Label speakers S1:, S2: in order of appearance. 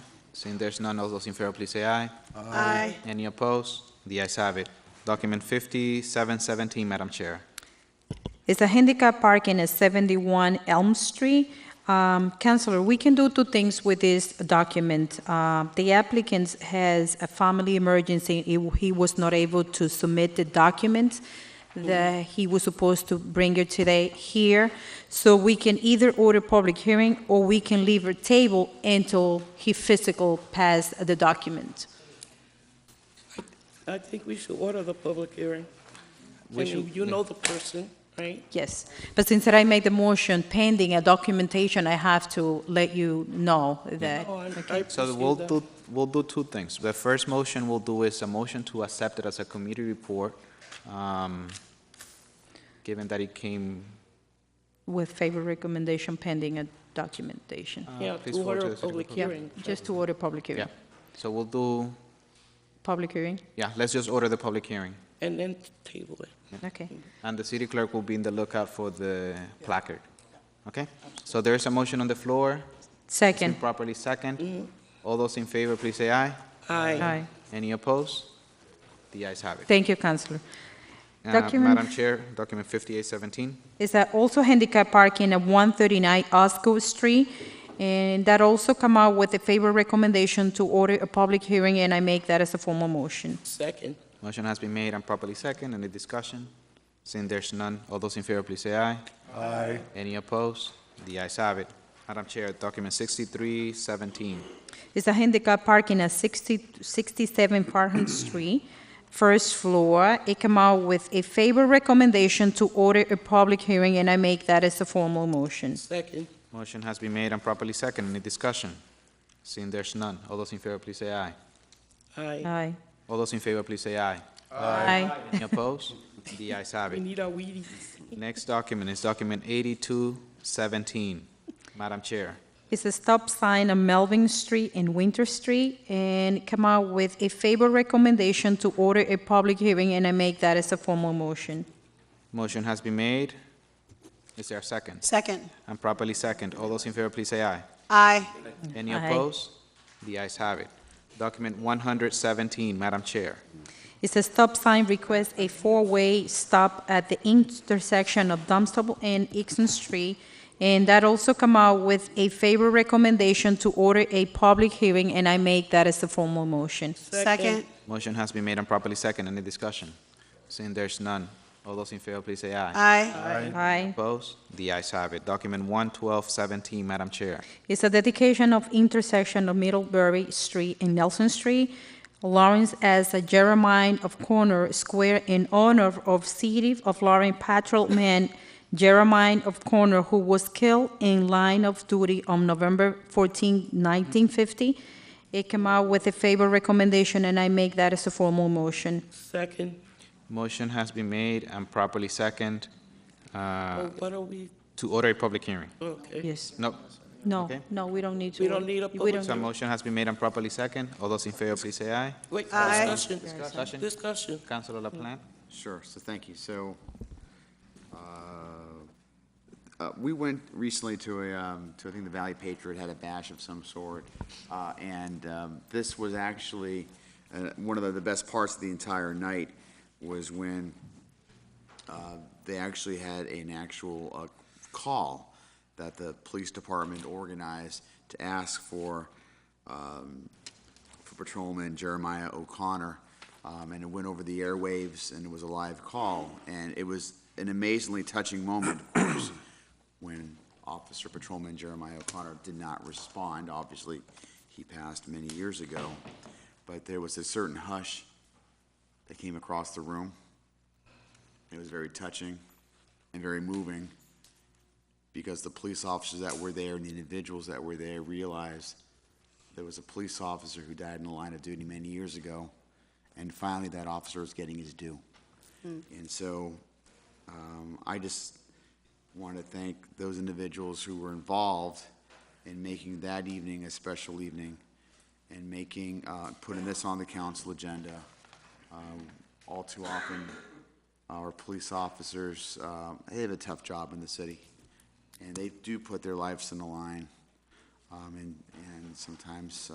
S1: Seeing there's none, all those in favor, please say aye.
S2: Aye.
S1: Any opposed? The ayes have it. Document 5717, Madam Chair.
S3: It's a handicap parking at 71 Elm Street. Um, Counselor, we can do two things with this document. Uh, The applicant has a family emergency. He he was not able to submit the document that he was supposed to bring it today here. So we can either order public hearing, or we can leave a table until he physical passed the document.
S2: I think we should order the public hearing.
S1: We
S2: And
S1: should-
S2: you- you know the person, right?
S3: Yes, but since that I made the motion pending a documentation, I have to let you know that.
S2: Oh, I- I
S1: So
S2: appreciate
S1: we'll
S2: that.
S1: do, we'll do two things. The first motion we'll do is a motion to accept it as a committee report, um, given that it came,
S3: With favor recommendation pending a documentation.
S2: Yeah,
S1: uh, please
S2: to
S1: forward to
S2: order
S1: the
S2: a public
S1: secretary.
S3: Yeah,
S2: hearing.
S3: just to order public
S1: Yeah,
S3: hearing.
S1: so we'll do,
S3: Public hearing,
S1: yeah, let's just order the public hearing.
S2: And then table it.
S3: okay.
S1: And the city clerk will be in the lookout for the placard. Okay? So there is a motion on the floor. It's been
S3: Second,
S1: properly second. All those in favor, please say aye.
S2: Aye.
S3: aye.
S1: Any opposed? The ayes have it.
S3: Thank you, Counselor.
S1: Uh,
S3: Document-
S1: Madam Chair, document 5817.
S3: Is that also handicap parking at 139 Osgood Street? And that also come out with a favor recommendation to order a public hearing, and I make that as a formal motion.
S2: Second.
S1: Motion has been made and properly second. Any discussion? Seeing there's none, all those in favor, please say aye. Aye. Any opposed? The ayes have it. Madam Chair, document 6317.
S3: It's a handicap parking at 60 67 Parham Street, first floor. It come out with a favor recommendation to order a public hearing, and I make that as a formal motion.
S2: Second.
S1: Motion has been made and properly second. Any discussion? Seeing there's none, all those in favor, please say aye.
S2: Aye.
S3: Aye.
S1: All those in favor, please say aye.
S3: Aye.
S1: Any opposed? The ayes have
S2: We
S1: it.
S2: need our Wheaties.
S1: Next document is document 8217. Madam Chair.
S3: It's a stop sign on Melvin Street and Winter Street, and come out with a favor recommendation to order a public hearing, and I make that as a formal motion.
S1: Motion has been made. Is there a second?
S4: Second.
S1: And properly second. All those in favor, please say aye.
S4: Aye.
S1: Any
S3: Aye.
S1: opposed? The ayes have it. Document 117, Madam Chair.
S3: It's a stop sign request, a four-way stop at the intersection of Dunstable and Exon Street, and that also come out with a favor recommendation to order a public hearing, and I make that as a formal motion.
S4: Second.
S1: Motion has been made and properly second. Any discussion? Seeing there's none, all those in favor, please say aye.
S4: Aye.
S3: Aye.
S1: Opposed? The ayes have it. Document 11217, Madam Chair.
S3: It's a dedication of intersection of Middlebury Street and Nelson Street, Lawrence as a Jeremiah of Corner Square in honor of City of Lawrence patrolman Jeremiah of Corner, who was killed in line of duty on November 14, 1950. It came out with a favor recommendation, and I make that as a formal motion.
S2: Second.
S1: Motion has been made and properly second uh,
S2: Oh, what are we,
S1: to order a public hearing.
S2: okay.
S3: Yes.
S1: No,
S3: No,
S1: Okay.
S3: no, we don't need to.
S2: We don't need a
S3: we
S2: public
S3: don't
S1: so a motion has been made and properly second. All those in favor, please say aye.
S2: Wait,
S4: Aye.
S2: discussion.
S1: Discussion.
S2: Discussion.
S1: Councilor LaPlante?
S5: Sure, so thank you. So, uh, uh, we went recently to a, um, to, I think, the Valley Patriot had a bash of some sort, uh, and um, this was actually, uh, one of the- the best parts of the entire night was when uh, they actually had an actual uh, call that the police department organized to ask for for Patrolman Jeremiah O'Connor, um, and it went over the airwaves, and it was a live call, and it was an amazingly touching moment, of course, when Officer Patrolman Jeremiah O'Connor did not respond. Obviously, he passed many years ago, but there was a certain hush that came across the room. It was very touching and very moving, because the police officers that were there and the individuals that were there realized there was a police officer who died in the line of duty many years ago, and finally that officer is getting his due. And so, um, I just want to thank those individuals who were involved in making that evening a special evening and making, uh, putting this on the council agenda. Um, all too often, our police officers, um, they have a tough job in the city, and they do put their lives on the line. Um, and, and sometimes,